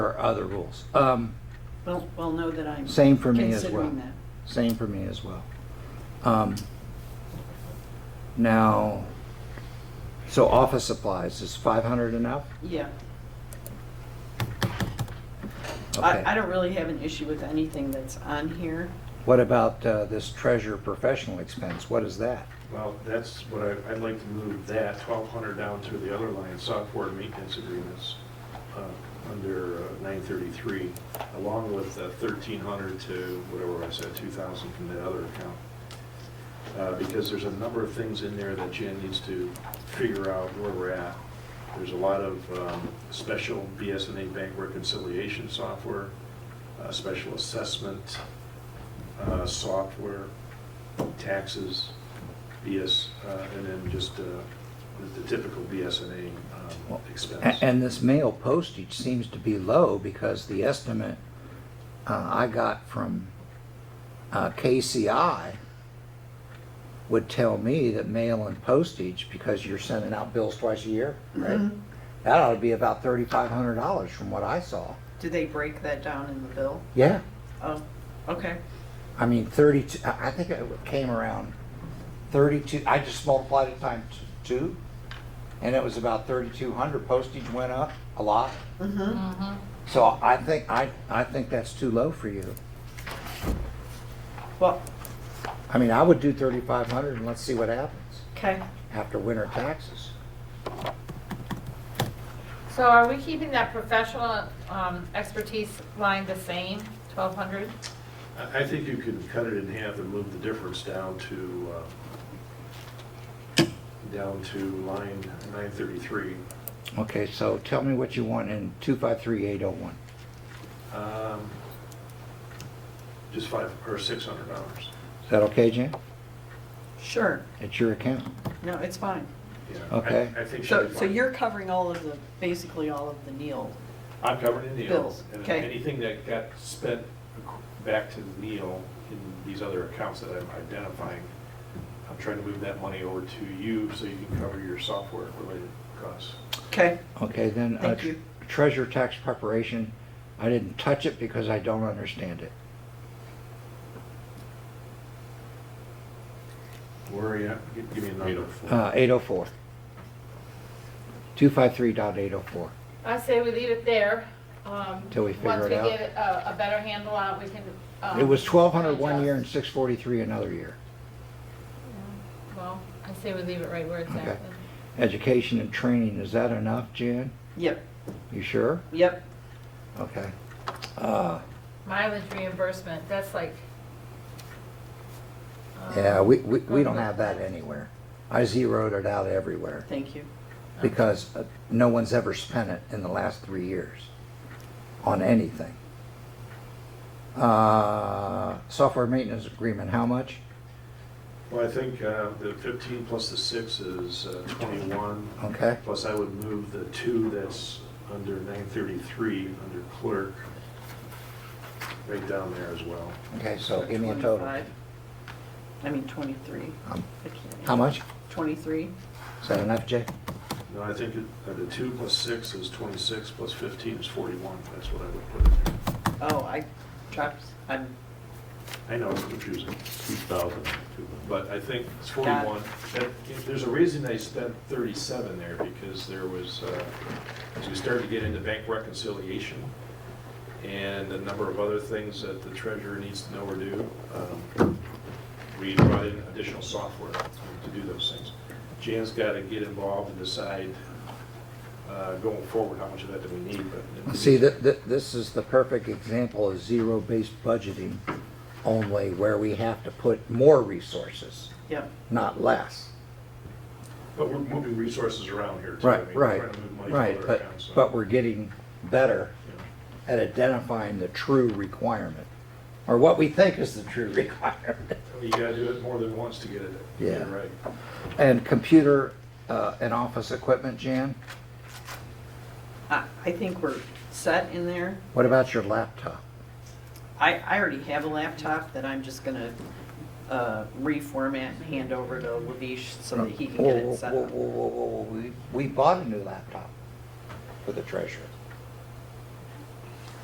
are other rules. Um, Well, well, know that I'm Same for me as well. considering that. Same for me as well. Um, now, so office supplies is five hundred enough? Yeah. Okay. I, I don't really have an issue with anything that's on here. What about uh, this treasurer professional expense? What is that? Well, that's what I, I'd like to move that twelve hundred down to the other line, software maintenance agreements, uh, under nine thirty-three, along with thirteen hundred to whatever I said, two thousand from the other account. Uh, because there's a number of things in there that Jen needs to figure out where we're at. There's a lot of, um, special BSNA bank reconciliation software, uh, special assessment, uh, software, taxes, BS, uh, and then just uh, the the typical BSNA um, A- expense. And this mail postage seems to be low because the estimate uh, I got from uh, KCI would tell me that mail and postage, because you're sending out bills twice a year, right? Mhm. That ought to be about thirty-five hundred dollars from what I saw. Did they break that down in the bill? Yeah. Oh, okay. I mean, thirty-two, I I think it came around thirty-two, I just multiplied it times two, and it was about thirty-two hundred. Postage went up a lot. Mm-hmm. So I think, I, I think that's too low for you. Well, I mean, I would do thirty-five hundred and let's see what happens okay. after winter taxes. So are we keeping that professional um, expertise line the same, 1,200? I I think you can cut it in half and move the difference down to, uh, down to line 933. Okay, so tell me what you want in two-five-three-eight-oh-one. Um, Just five, or $600. Is that okay, Jim? Sure. It's your account. No, it's fine. Yeah, I- Okay. I think she'll So, be so fine. you're covering all of the, basically all of the Neil. I'm covered in Neil. Bills, And okay. anything that got spent ac- back to Neil in these other accounts that I'm identifying, I'm trying to move that money over to you so you can cover your software-related costs. Okay. Okay, then. uh, Thank tr- you. Treasure tax preparation, I didn't touch it because I don't understand it. Where are you at? Gi- Give me a number. Uh, eight-oh-four. Two-five-three dot oh eight-oh-four. I say we leave it there. um, Till we figure it out. Once we get a a better handle on it, we can. Oh, um, It was twelve hundred one year and adjust. six forty-three another year. Well, I say we leave it right where it's Okay. at. Education and training, is that enough, Jan? Yep, You sure? yep. Okay. Uh, Mileage reimbursement, that's like. um, Yeah, we, we, we don't have that anywhere. I zeroed it out everywhere Thank you. because uh, no one's ever spent it in the last three years on anything. Uh, software maintenance agreement, how much? Well, I think uh, the 15 plus the 6 is uh, 21. Okay, Plus, I would move the 2 that's under 933, under clerk, right down there as well. okay, so give me a total. 25. I mean, twenty-three. Um, I can't- How much? Twenty-three. Is that enough, Jay? No, I think it- uh, the 2 plus 6 is 26, plus 15 is 41. That's what I would put in there. Oh, I dropped, I'm, I know it's confusing, 2,000. but I think it's 41. That- There's a reason they spent 37 there, because there was, uh, as we started to get into bank reconciliation and a number of other things that the treasurer needs to know or do, um, we brought in additional software to do those things. Jan's got to get involved and decide uh, going forward how much of that do we need, but. See, that, that, this is the perfect example of zero-based budgeting only where we have to put more resources, yep. not less. But we're moving resources around here too. I Right, mean, we're right, trying to move money from right, other but, accounts, so- but we're getting better Yeah. at identifying the true requirement, or what we think is the true requirement. You gotta do it more than once to get it. Yeah. You're Right. And computer uh, and office equipment, Jan, I, I think we're set in there. what about your laptop? I, I already have a laptop that I'm just gonna, uh, reformat and hand over to Lavish so that he can get Whoa, it set whoa, up. whoa, whoa, whoa, whoa, we, we bought a new laptop for the treasurer.